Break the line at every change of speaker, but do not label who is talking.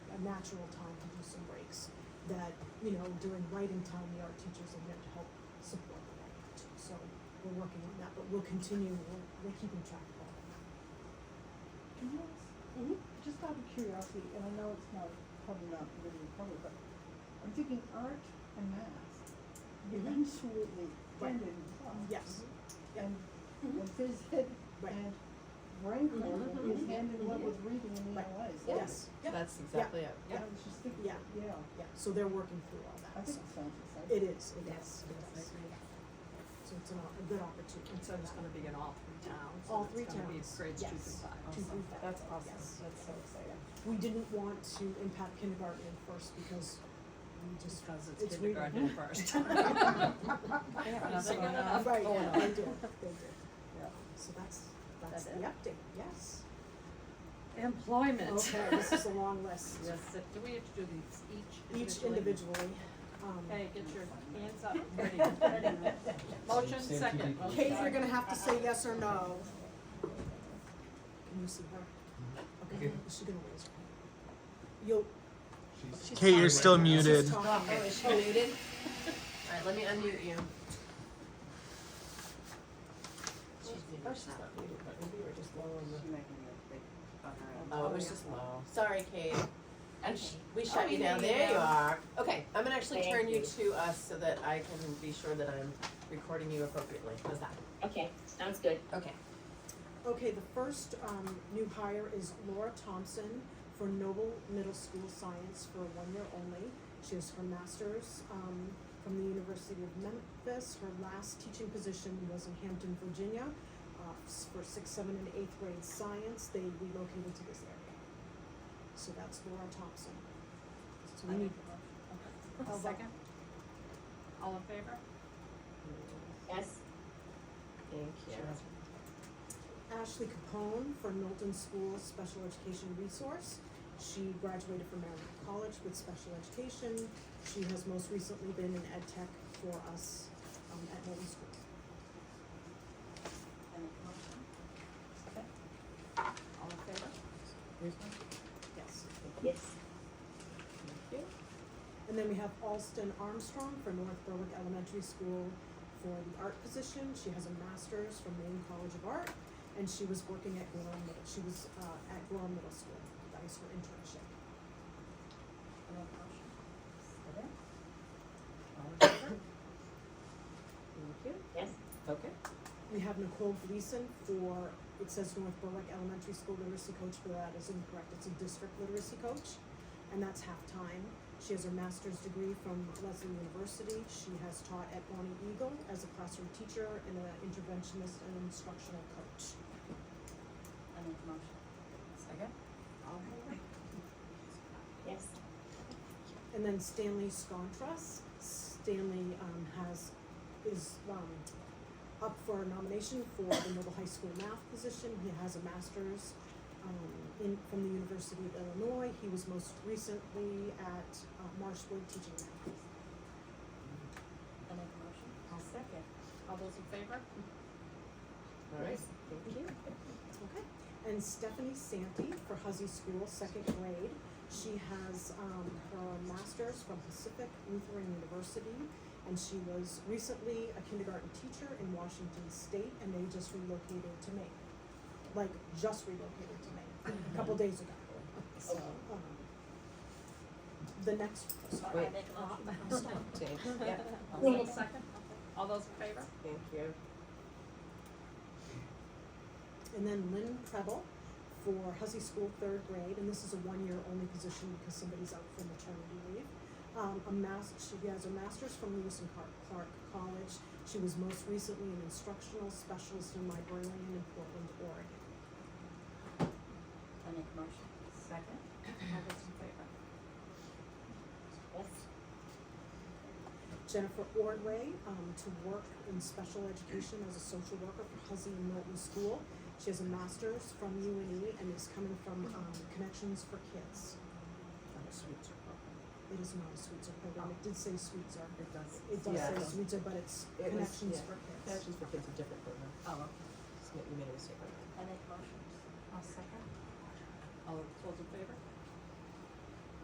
natural time to do some breaks. That, you know, during writing time, the art teachers are there to help support the language. So we're working on that, but we'll continue, we're, we're keeping track of all that.
Can you ask,
Mm-hmm.
just out of curiosity, and I know it's not, probably not really public, but I'm thinking art and math eventually
Mm-hmm. Right.
end in class.
Yes, Mm-hmm.
Mm-hmm.
And, and phys ed
Right. Mm-hmm.
and brain
Mhm,
learning is
mhm,
hand in love
mhm.
with reading and
Right.
ELA. so
yes, yeah,
That's exactly it,
I
yeah.
was just thinking,
Yeah.
yeah,
yeah, so they're working through all
I
that, so.
think it sounds exciting.
It is, it is,
Yes,
it is.
yes, I agree.
So it's an op- a good opportunity.
And so it's
for
gonna
that.
be in all three towns.
All
and it's
three
gonna be
towns,
Grades two through
yes.
five.
Two through five,
That's awesome,
yes.
that's so exciting.
We didn't want to impact kindergarten in first because we just.
Just cause
It's
it's kindergarten
weird.
first.
Nothing going
going on.
Right,
going
yeah,
on.
they do, they do.
Yeah.
So that's, that's
That
the
it?
update, yes.
Employment.
Okay, this is a long list.
Yes, do we have to do these each individually?
Each individually, um,
Okay, get your hands up, ready, ready. Motion
Safety
second.
people.
Kate, you're gonna have to say yes or no. Can you see her? Okay,
Okay.
is she gonna raise her hand? You'll.
She's-
Kate, you're still
she's
muted.
talking.
Oh, is she muted? Alright, let me unmute you. She's muted.
Oh, she's not muted, but we were just lowering the.
Oh, it was just low. Sorry, Kate. And sh- we
Oh,
shut you
you
down,
made it
there you
down.
are. Okay, I'm gonna actually
Thank
turn you
you.
to us so that I can be sure that I'm recording you appropriately. How's that?
Okay, sounds good.
Okay.
Okay, the first, um, new hire is Laura Thompson for Noble Middle School Science for one year only. She has her master's, um, from the University of Memphis. Her last teaching position was in Hampton, Virginia, uh, s- for sixth, seventh, and eighth grade science. They relocated to this area. So that's Laura Thompson. So we need,
A Second. All in favor?
Yes,
Thank you.
Ashley Capone for Milton School Special Education Resource. She graduated from Maryland College with special education. She has most recently been in ed tech for us um, at Milton School.
All in favor?
Yes.
yes,
Thank you.
And then we have Alston Armstrong for North Berwick Elementary School for the art position. She has a master's from Maine College of Art, and she was working at Gorham Middle. She was uh, at Gorham Middle School. That was her internship.
All in favor?
Thank you.
yes,
Okay.
We have Nicole Gleason for, it says North Berwick Elementary School literacy coach, but that is incorrect, it's a district literacy coach, and that's half-time. She has her master's degree from Leslie University, she has taught at Bonnie Eagle as a classroom teacher and an interventionist and instructional coach.
Second?
All in favor?
yes,
And then Stanley Scontras, Stanley, um, has, is, um, up for nomination for the Noble High School math position. He has a master's, um, in, from the University of Illinois. He was most recently at uh, Marshwood teaching math.
I'll second. All those in favor?
All right.
Thank you.
Okay, and Stephanie Santee for Huzzy School, second grade. She has, um, her master's from Pacific Lutheran University, and she was recently a kindergarten teacher in Washington State, and they just relocated to Maine. Like, just relocated to Maine, a couple days ago, so, um, the next, sorry, I
Wait.
dropped- I stopped.
Thank
Yeah.
Yeah.
Second. All those in favor?
Thank you.
And then Lynn Preble for Hussey School third grade, and this is a one-year only position because somebody's out for maternity leave. Um, a mas- she has a master's from Lewis and Clark, Clark College. She was most recently an instructional specialist and librarian in Portland, Oregon.
I make a motion. Second. All those in favor?
yes,
Jennifer Ordway, um, to work in special education as a social worker for Hussey and Milton School. She has a master's from UNE and is coming from, um, Connections for Kids. It is not a Sweetser program, it did say Sweetser.
It does.
It does
Yeah.
say Sweetser, but it's
It was-
Connections
yeah.
for Kids.
Connections for Kids are different program.
Oh, okay.
Just made- You made a mistake on that.
All those those in favor?